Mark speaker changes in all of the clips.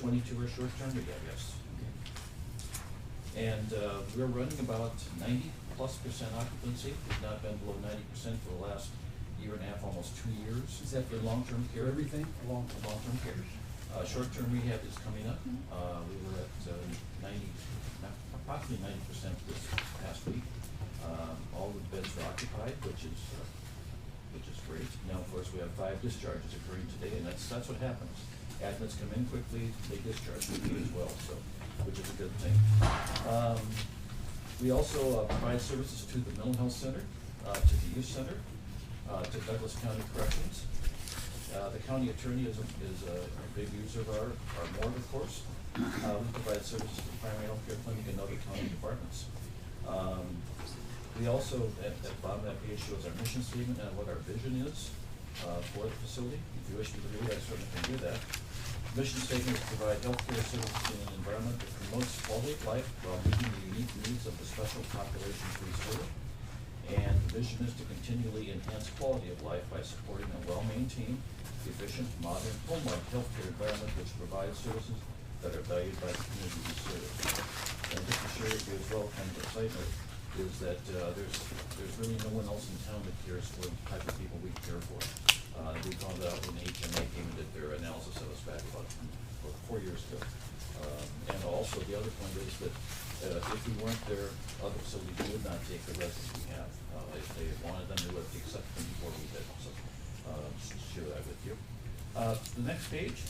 Speaker 1: Twenty-two are short-term rehab, yes. And uh, we're running about ninety-plus percent occupancy, we've not been below ninety percent for the last year and a half, almost two years.
Speaker 2: Is that
Speaker 1: for long-term care?
Speaker 2: For everything?
Speaker 1: Long, long-term care. Uh, Short-term rehab is coming up, uh, we were at uh, ninety, approximately ninety percent this past week. Um, All the beds are occupied, which is uh, which is great. Now, of course, we have five discharges occurring today, and that's, that's what happens. Admins come in quickly, they discharge quickly as well, so, which is a good thing. Um, We also uh, provide services to the mental health center, uh, to the youth center, uh, to Douglas County Corrections. Uh, The county attorney is, a- is a a big user of our, our board, of course. Uh, We provide services to primary health care clinic and other county departments. Um, we also, at, at the bottom of that page shows our mission statement and what our vision is, uh, for the facility. If you wish me to read, it, I certainly can do that. Mission statement is to provide healthcare services in an environment that promotes quality of life while meeting the unique needs of the special populations we serve. And the vision is to continually enhance quality of life by supporting a well-maintained, efficient, modern, home-like healthcare environment which provides services that are valued by the community we serve. And just to share with you as well, kind of excitement, is that uh, there's, there's really no one else in town that cares for the type of people we care for. Uh, We found out when HMA came and did their analysis of us back about about four years ago. Um, And also, the other point is that uh, if we weren't there, other facilities would not take the residents we have. Uh, If they wanted them, they would have accepted them before we did, so uh, just to share that with you. Uh, The next page,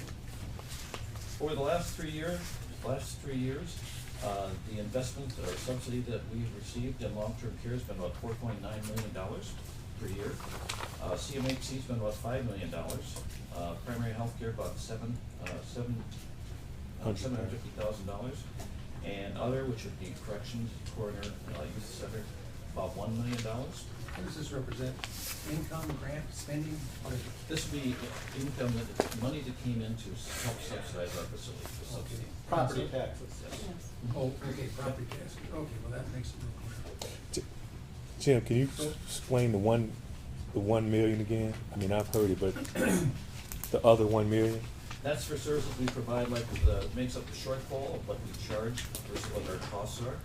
Speaker 1: over the last three years, last three years, uh, the investment or subsidy that we've received in long-term care has been about four point nine million dollars per year. Uh, CMHC's been about five million dollars, uh, primary healthcare about seven, uh, seven, uh,
Speaker 3: Hundred
Speaker 1: seven hundred
Speaker 3: thousand.
Speaker 1: fifty thousand dollars. And other, which would be corrections, coroner, uh, youth center, about one million dollars.
Speaker 2: What does this represent? Income, grant, spending? What is it?
Speaker 1: This would be income that, money that came in to help subsidize our facility, the subsidy.
Speaker 4: Property taxes.
Speaker 1: Yes.
Speaker 2: Oh, okay, property taxes. Okay, well, that makes it real clear.
Speaker 3: J- Jim, can you s- explain the one, the one million again? I mean, I've heard it, but the other one million?
Speaker 1: That's for services we provide, like the, makes up the shortfall of what we charge versus what our costs are.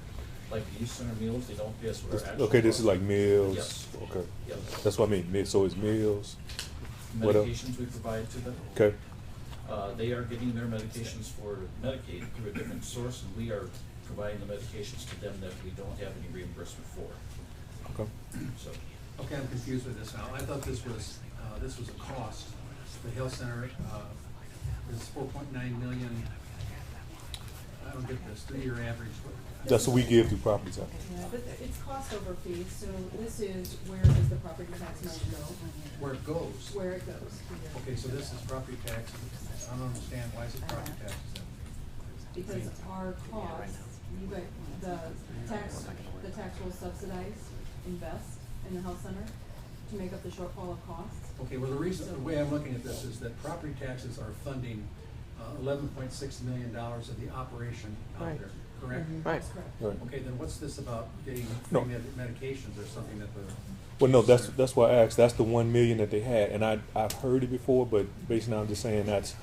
Speaker 1: Like the youth center meals, they don't pay us what our actual.
Speaker 3: Okay, this is
Speaker 1: costs.
Speaker 3: like meals,
Speaker 1: Yes.
Speaker 3: okay.
Speaker 1: Yep.
Speaker 3: That's what I mean, mi- so it's meals, what else?
Speaker 1: Medications we provide to them.
Speaker 3: okay?
Speaker 1: Uh, they are getting their medications for Medicaid through a different source, and we are providing the medications to them that we don't have any reimbursement for,
Speaker 3: Okay.
Speaker 1: so.
Speaker 2: Okay, I'm confused with this now. I thought this was, uh, this was a cost. The health center, uh, is four point nine million. I don't get this, three-year average. What-
Speaker 3: That's what we give through property tax.
Speaker 5: Yeah, but it's cost over fees, so this is where does the property tax money go,
Speaker 2: Where it goes.
Speaker 5: where it goes.
Speaker 2: Okay, so this is property tax. I don't understand. Why is it property taxes then?
Speaker 5: Because our costs, you guys, the tax, the tax will subsidize, invest in the health center to make up the shortfall of costs.
Speaker 2: Okay, well, the reason, the way I'm looking at this is that property taxes are funding uh, eleven point six million dollars of the operation out
Speaker 6: Right.
Speaker 2: there, correct?
Speaker 6: Right.
Speaker 5: Mm-hmm. That's correct.
Speaker 3: Right.
Speaker 2: Okay, then what's this about getting free
Speaker 3: No.
Speaker 2: med- medications or something that the?
Speaker 3: Well, no, that's, that's why I asked, that's the one million that they had, and I, I've heard it before, but basically I'm just saying that's,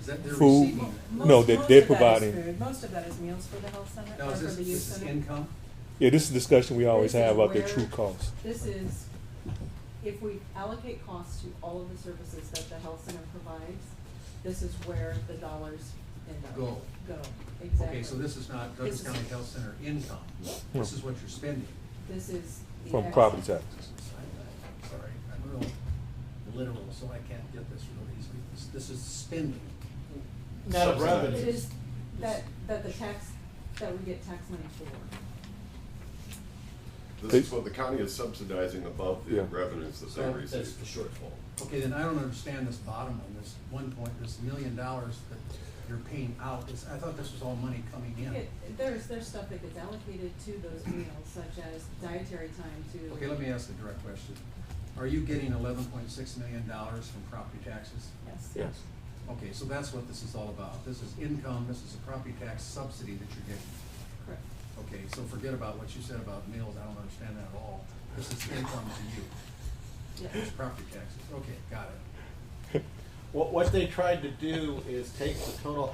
Speaker 2: Is that they're
Speaker 3: Food.
Speaker 2: receiving?
Speaker 5: Most-
Speaker 3: No, they-
Speaker 5: most
Speaker 3: they're
Speaker 5: of that is
Speaker 3: providing-
Speaker 5: food. Most of that is meals for the health center,
Speaker 2: Now,
Speaker 5: or
Speaker 2: is
Speaker 5: for
Speaker 2: this,
Speaker 5: the youth
Speaker 2: this is
Speaker 5: center.
Speaker 2: income?
Speaker 3: yeah, this is a discussion we always
Speaker 5: This is
Speaker 3: have about the
Speaker 5: where-
Speaker 3: true cost.
Speaker 5: This is, if we allocate costs to all of the services that the health center provides, this is where the dollars end up.
Speaker 2: Go.
Speaker 5: Go, exactly.
Speaker 2: Okay, so this is not Douglas
Speaker 5: This is-
Speaker 2: County Health Center income.
Speaker 3: No.
Speaker 2: This is what you're spending.
Speaker 5: This is. the
Speaker 3: From
Speaker 5: ex-
Speaker 3: property taxes.
Speaker 2: I'm Sorry, I'm real literal, so I can't get this real easily. This- This is spending.
Speaker 4: Net
Speaker 2: Subsidized.
Speaker 4: of
Speaker 5: It
Speaker 4: revenue.
Speaker 5: is that, that the tax, that we get tax money for.
Speaker 7: This is what the county is subsidizing above the
Speaker 3: Yeah.
Speaker 7: revenues that they
Speaker 2: So
Speaker 7: receive.
Speaker 1: That's the shortfall.
Speaker 2: Okay, then I don't understand this bottom one, this one point, this million dollars that you're paying out. This- I thought this was all money coming in.
Speaker 5: It- There's, there's stuff that gets allocated to those meals, such as dietary time to.
Speaker 2: Okay, let me ask a direct question. Are you getting eleven point six million dollars from property taxes?
Speaker 5: Yes.
Speaker 3: Yes.
Speaker 2: Okay, so that's what this is all about. This is income, this is a property tax subsidy that you're getting.
Speaker 5: Correct.
Speaker 2: Okay, so forget about what you said about meals, I don't understand that at all. This is income to you.
Speaker 5: Yes.
Speaker 2: It's property taxes, okay, got it.
Speaker 4: What, what they tried to do is take the total